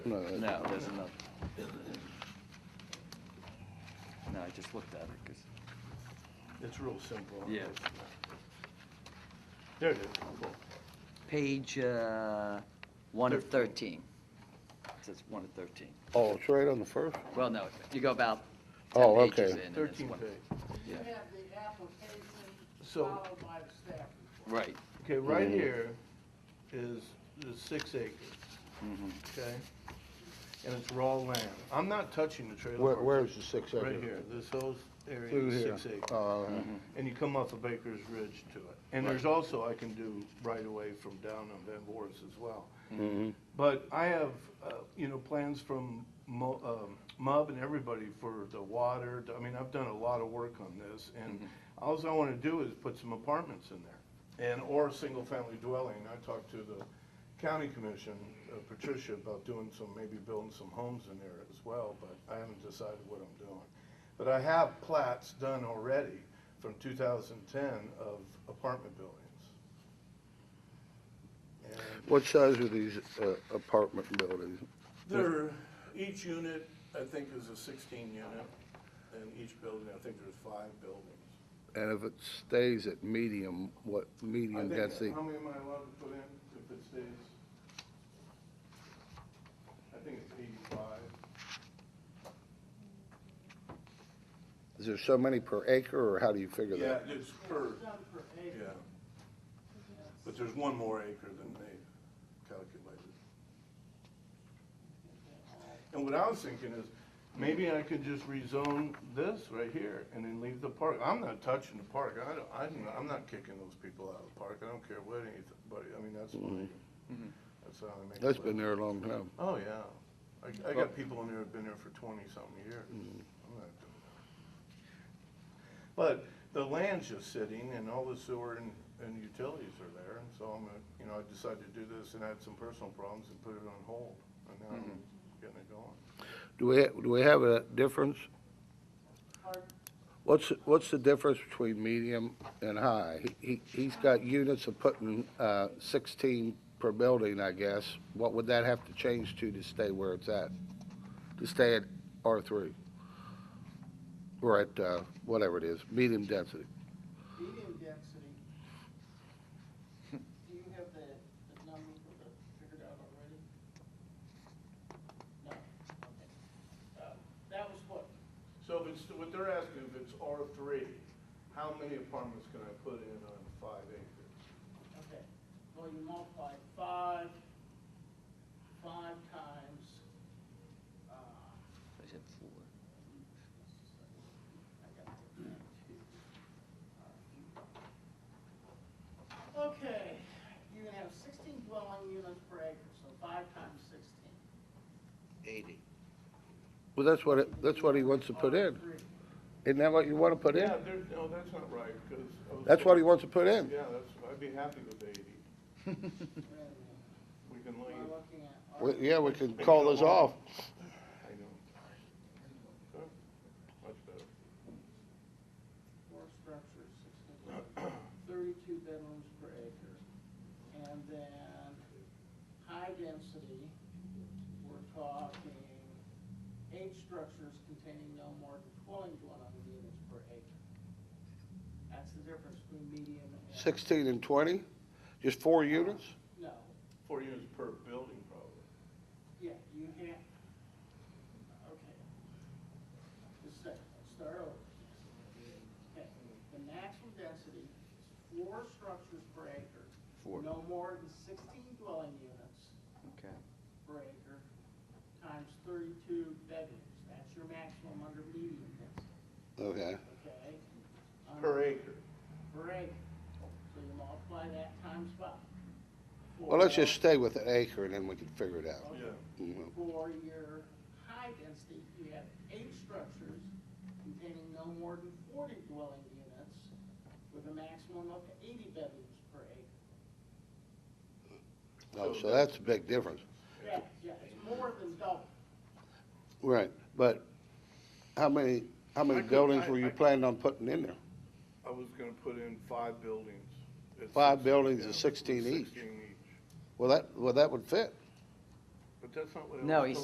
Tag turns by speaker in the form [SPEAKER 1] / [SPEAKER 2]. [SPEAKER 1] No, there's another. No, I just looked at it, because,
[SPEAKER 2] It's real simple.
[SPEAKER 1] Yeah.
[SPEAKER 2] There it is.
[SPEAKER 1] page uh, 1 of 13. It says 1 of 13.
[SPEAKER 3] Oh, it's right on the first?
[SPEAKER 1] Well, no, you go about
[SPEAKER 3] Oh,
[SPEAKER 1] 10
[SPEAKER 3] okay.
[SPEAKER 1] pages in. and it's
[SPEAKER 2] Thirteen
[SPEAKER 1] one-
[SPEAKER 2] page.
[SPEAKER 1] Yeah,
[SPEAKER 4] You have the application
[SPEAKER 2] So-
[SPEAKER 4] followed by the staff report.
[SPEAKER 1] right.
[SPEAKER 2] Okay,
[SPEAKER 3] Mm-hmm.
[SPEAKER 2] right here is, is six acres,
[SPEAKER 1] mhm.
[SPEAKER 2] okay? And it's raw land. I'm not touching the trailer
[SPEAKER 3] Where,
[SPEAKER 2] park.
[SPEAKER 3] where's the six acre?
[SPEAKER 2] Right here, this whole area
[SPEAKER 3] Through
[SPEAKER 2] is
[SPEAKER 3] here.
[SPEAKER 2] six acres.
[SPEAKER 3] Oh, okay.
[SPEAKER 1] Mm-hmm.
[SPEAKER 2] And you come off of Baker's Ridge to it. And
[SPEAKER 1] Right.
[SPEAKER 2] there's also, I can do right away from down on Van Boris as well.
[SPEAKER 3] Mhm.
[SPEAKER 2] But I have, uh, you know, plans from Mo- um, MUB and everybody for the water. I mean, I've done a lot of work on this, and all I want to do is put some apartments in there, and, or a single-family dwelling. I talked to the county commission, uh, Patricia, about doing some, maybe building some homes in there as well, but I haven't decided what I'm doing. But I have plats done already from 2010 of apartment buildings. And
[SPEAKER 3] What size are these uh, apartment buildings?
[SPEAKER 2] There, each unit, I think, is a sixteen unit, and each building, I think there's five buildings.
[SPEAKER 3] And if it stays at medium, what medium
[SPEAKER 2] I think- um,
[SPEAKER 3] density?
[SPEAKER 2] How many am I allowed to put in if it stays? I think it's eighty-five.
[SPEAKER 3] Is there so many per acre, or how do you figure
[SPEAKER 2] Yeah,
[SPEAKER 3] that?
[SPEAKER 2] it's per,
[SPEAKER 4] It's done per acre.
[SPEAKER 2] yeah. But there's one more acre than they calculated. And what I was thinking is, maybe I could just rezone this right here and then leave the park. I'm not touching the park. I don't, I'm, not- I'm not kicking those people out of the park. I don't care what anybody, I mean, that's my, that's how I make. a
[SPEAKER 3] That's been
[SPEAKER 2] living.
[SPEAKER 3] there a long time.
[SPEAKER 2] Oh, yeah. I, I got people in there who've been there for twenty-something years.
[SPEAKER 3] Mm-hmm.
[SPEAKER 2] I'm not doing that. But the land's just sitting and all the sewer and, and utilities are there, and so I'm, gonna- you know, I decided to do this and I had some personal problems and put it on hold, and now I'm
[SPEAKER 3] Mm-hmm.
[SPEAKER 2] getting it going.
[SPEAKER 3] Do we, do we have a difference?
[SPEAKER 4] Pardon?
[SPEAKER 3] What's, what's the difference between medium and high? He, he- he's got units of putting uh, 16 per building, I guess. What would that have to change to to stay where it's at? To stay at R3? Or at, uh, whatever it is, medium density?
[SPEAKER 4] Medium density. Do you have the, the number for the, figured out already? No, okay. Uh, That was what,
[SPEAKER 2] So if it's, what they're asking, if it's R three, how many apartments can I put in on five acres?
[SPEAKER 4] okay. Well, you multiply five, five times, uh,
[SPEAKER 1] I said four.
[SPEAKER 4] I got the, Okay, you're gonna have sixteen dwelling units per acre, so five times sixteen.
[SPEAKER 3] Well, that's what, it- that's what he wants to put in.
[SPEAKER 4] Three.
[SPEAKER 3] Isn't that what you want to put in?
[SPEAKER 2] Yeah, there's, no, that's not right, because.
[SPEAKER 3] That's what he wants to put in?
[SPEAKER 2] Yeah, that's, I'd be happy with eighty.
[SPEAKER 4] Wait a minute,
[SPEAKER 2] We can
[SPEAKER 4] am
[SPEAKER 2] leave.
[SPEAKER 4] I looking at? all
[SPEAKER 3] We-
[SPEAKER 4] right,
[SPEAKER 3] Yeah, we could call this off.
[SPEAKER 2] I know. Huh? Much better.
[SPEAKER 4] Four structures, sixteen, thirty-two bedrooms per acre. And then, high density, we're talking eight structures containing no more than twelve dwelling units per acre. That's the difference between medium and.
[SPEAKER 3] 16 and 20? Just four units?
[SPEAKER 4] No,
[SPEAKER 2] Four units per building, probably.
[SPEAKER 4] yeah, you can't, okay. Just a sec, let's start over. Okay, the maximum density is four structures per acre.
[SPEAKER 1] Four.
[SPEAKER 4] No more than sixteen dwelling units
[SPEAKER 1] Okay.
[SPEAKER 4] per acre, times thirty-two bedrooms. That's your maximum under median density,
[SPEAKER 3] Okay.
[SPEAKER 4] okay?
[SPEAKER 1] Uh-huh.
[SPEAKER 2] Per
[SPEAKER 4] Um,
[SPEAKER 2] acre.
[SPEAKER 4] Per acre. So you multiply that times five.
[SPEAKER 3] Well, let's
[SPEAKER 4] Four-
[SPEAKER 3] just stay with an acre, and then we can figure it out.
[SPEAKER 2] Yeah.
[SPEAKER 3] Mhm.
[SPEAKER 4] For your high density, you have eight structures containing no more than forty dwelling units with a maximum of eighty bedrooms per acre.
[SPEAKER 3] Oh, so that's a big difference.
[SPEAKER 4] Yeah, yeah, it's more than double.
[SPEAKER 3] Right, but how many, how many
[SPEAKER 2] I could-
[SPEAKER 3] buildings
[SPEAKER 2] I-
[SPEAKER 3] were
[SPEAKER 2] I
[SPEAKER 3] you
[SPEAKER 2] could-
[SPEAKER 3] planning on putting in there?
[SPEAKER 2] I was gonna put in five buildings. It's
[SPEAKER 3] Five
[SPEAKER 2] six-
[SPEAKER 3] buildings
[SPEAKER 2] yeah,
[SPEAKER 3] is 16 each.
[SPEAKER 2] Sixteen each.
[SPEAKER 3] Well, that, well, that would fit.
[SPEAKER 2] But but that's not what I
[SPEAKER 1] No,
[SPEAKER 2] was
[SPEAKER 1] he
[SPEAKER 2] told.